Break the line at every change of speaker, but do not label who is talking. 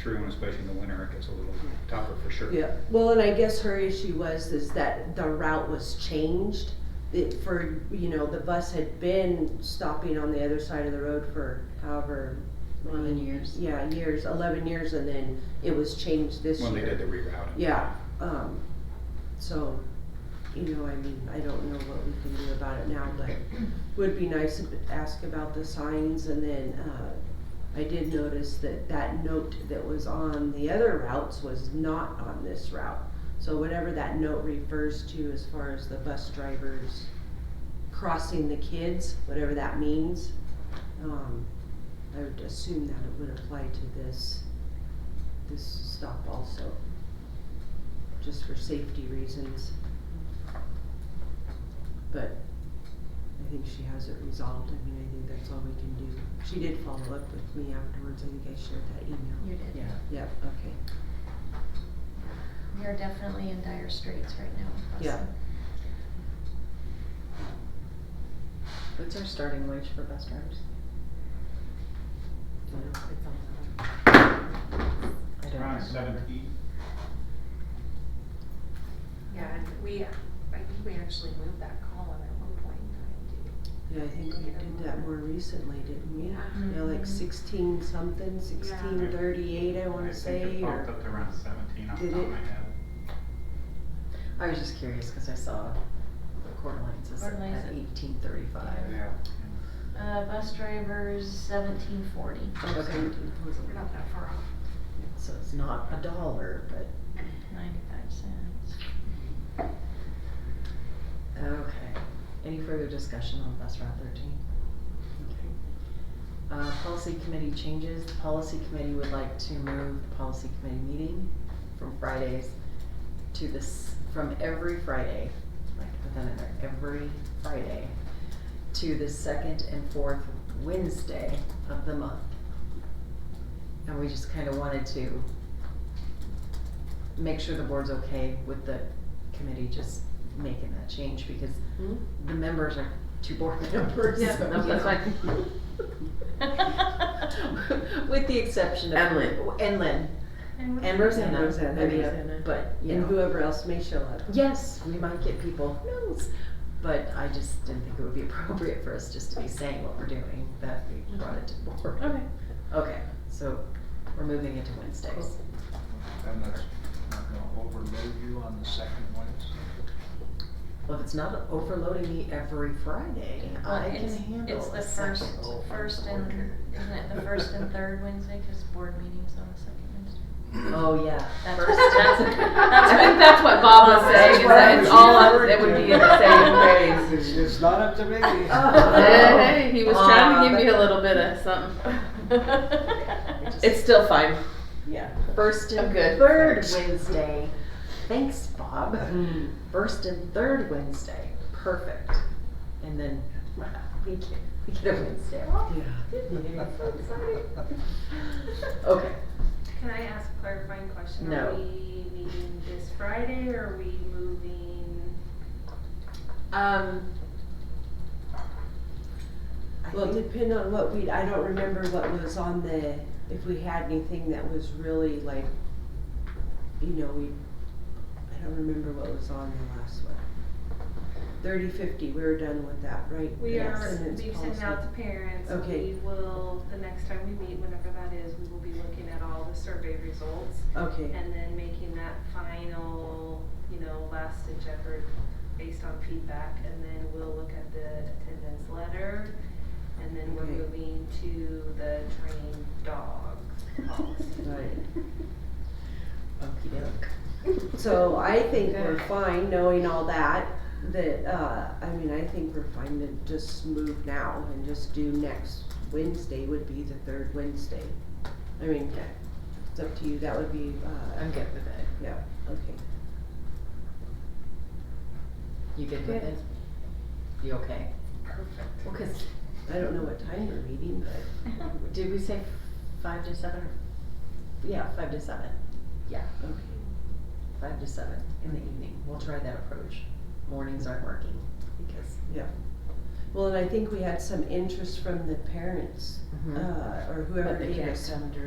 through, and especially in the winter, it gets a little tougher for sure.
Yeah, well, and I guess her issue was is that the route was changed. It for, you know, the bus had been stopping on the other side of the road for however. many-
Eleven years.
Yeah, years, eleven years, and then it was changed this year.
When they did the rerouting.
Yeah, um, so, you know, I mean, I don't know what we can do about it now, but would be nice to ask about the signs and then, uh, I did notice that that note that was on the other routes was not on this route. So whatever that note refers to as far as the bus drivers crossing the kids, whatever that means, um, I would assume that it would apply to this, this stop also just for safety reasons. But I think she has it resolved, I mean, I think that's all we can do. She did follow up with me afterwards, I think I shared that email.
You did.
Yep, okay,
We are definitely in dire straits right now with busing.
Yeah.
What's our starting wage for bus drivers? I
Around
don't remember.
seventy,
Yeah, and we, I think we actually moved that column at one point in time
yeah, I think we did that more recently, didn't we?
Yeah.
Yeah, like
Mm-hmm.
Mhm.
sixteen something, sixteen thirty-eight, I wanna say,
I think it bumped
or,
up to around seventeen off the
Did
top
it?
of my head.
I was just curious, cause I saw Coeur d'Alene's is
Coeur d'Alene's
at
at-
eighteen thirty-five.
yeah.
Uh, bus drivers seventeen forty.
or something.
too. We're not that far off.
So it's not a dollar, but,
Ninety-five cents.
okay. Any further discussion on bus route thirteen? Okay. Uh, policy committee changes, the policy committee would like to move the policy committee meeting from Fridays to this, from every Friday, like put that in there, every Friday, to the second and fourth Wednesday of the month. And we just kinda wanted to make sure the board's okay with the committee just making that change, because
Hmm?
the members are two board members.
Yeah,
so,
no,
you
that's
know. With the exception of.
And Lynn.
And Lynn.
And
And
we're
Rosanna.
Rosanna,
I mean, uh,
yeah.
But, you
And
know,
whoever else may show up.
yes, we might get people, who knows? But I just didn't think it would be appropriate for us just to be saying what we're doing, that we brought it to the board.
Okay.
Okay, so we're moving it to Wednesdays.
And that's not gonna overload you on the second Wednesday?
Well, if it's not overloading me every Friday,
Well,
I can
it's-
handle
It's the
a second.
first, first and, isn't it the first and third Wednesday, cause board meeting's on the second Wednesday?
Oh, yeah.
That's
first-
what, that's, that's
I think
what.
that's what Bob was
That's
saying, is
what
that
I'm
it's all on,
saying.
it would be in the same phrase.
It's, it's not up to me.
Oh.
Hey, he was trying to give you a little bit of something. It's still fine.
Yeah, first and
I'm good.
third
Thanks.
Wednesday. Thanks, Bob.
Hmm.
First and third Wednesday. Perfect. And then wow, we get, we get a Wednesday off.
Yeah.
Okay.
Can I ask a clarifying question?
No.
Are we meeting this Friday or are we moving?
Um. I
Well,
think-
depend on what we, I don't remember what was on the, if we had anything that was really like, you know, we, I don't remember what was on the last one. Thirty fifty, we were done with that, right?
We
The
are,
attendance
we've sent it
policy.
out to parents.
Okay.
We will, the next time we meet, whenever that is, we will be looking at all the survey results
Okay,
and then making that final, you know, last ditch effort based on feedback. And then we'll look at the attendance letter and then we're
Okay.
moving to the trained dog policy.
right.
Okey doke.
So I think we're
Okay.
fine, knowing all that, that, uh, I mean, I think we're fine to just move now and just do next Wednesday would be the third Wednesday. I mean, it's up to you, that would be, uh,
I'm good with it.
yeah, okay.
You good with
Good.
it? You okay?
Perfect.
Well, cause
I don't know what time we're meeting, but
did we say five to seven or? Yeah, five to seven. Yeah.
okay.
five to seven in the evening. We'll try that approach. Mornings aren't working because.
Well, and I think we had some interest from the parents, uh, or whoever
Mm-hmm. But they
gave
can't
us
come during